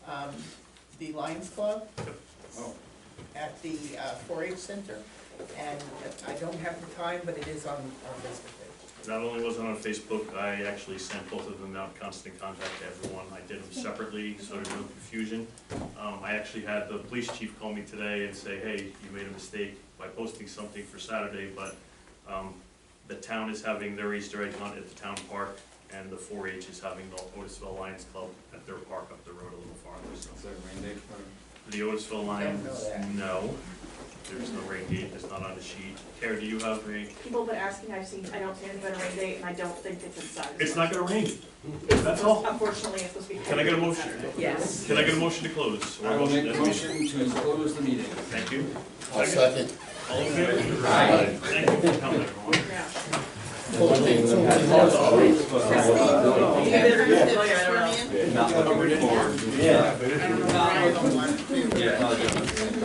um, the Lions Club Oh, at the four H center. And I don't have the time, but it is on, on Facebook page. Not only was it on Facebook, I actually sent both of them out, constant contact to everyone. I did them separately, so there's no confusion. Um, I actually had the police chief call me today and say, hey, you made a mistake by posting something for Saturday, but, um, the town is having their Easter egg hunt at the town park, and the four H is having the Otisville Lions Club at their park up the road a little farther, so. is that rain date for? The Otisville Don't know Lions, that. no, there's no rain date, it's not on the sheet. Kara, do you have a, People have been asking, I've seen, I don't see anything on rain date, and I don't think it's inside. it's not gonna rain, that's all. Unfortunately, it's supposed to be. Can I get a motion? Yes. Can I get a motion to close? Or I will make a to- motion to close the meeting. Thank you. I'll second. All in favor? Aye. Thank you for coming, everyone. Yeah. Christine, Christine, Christine, Not looking forward. I don't know why I don't want to. Yeah.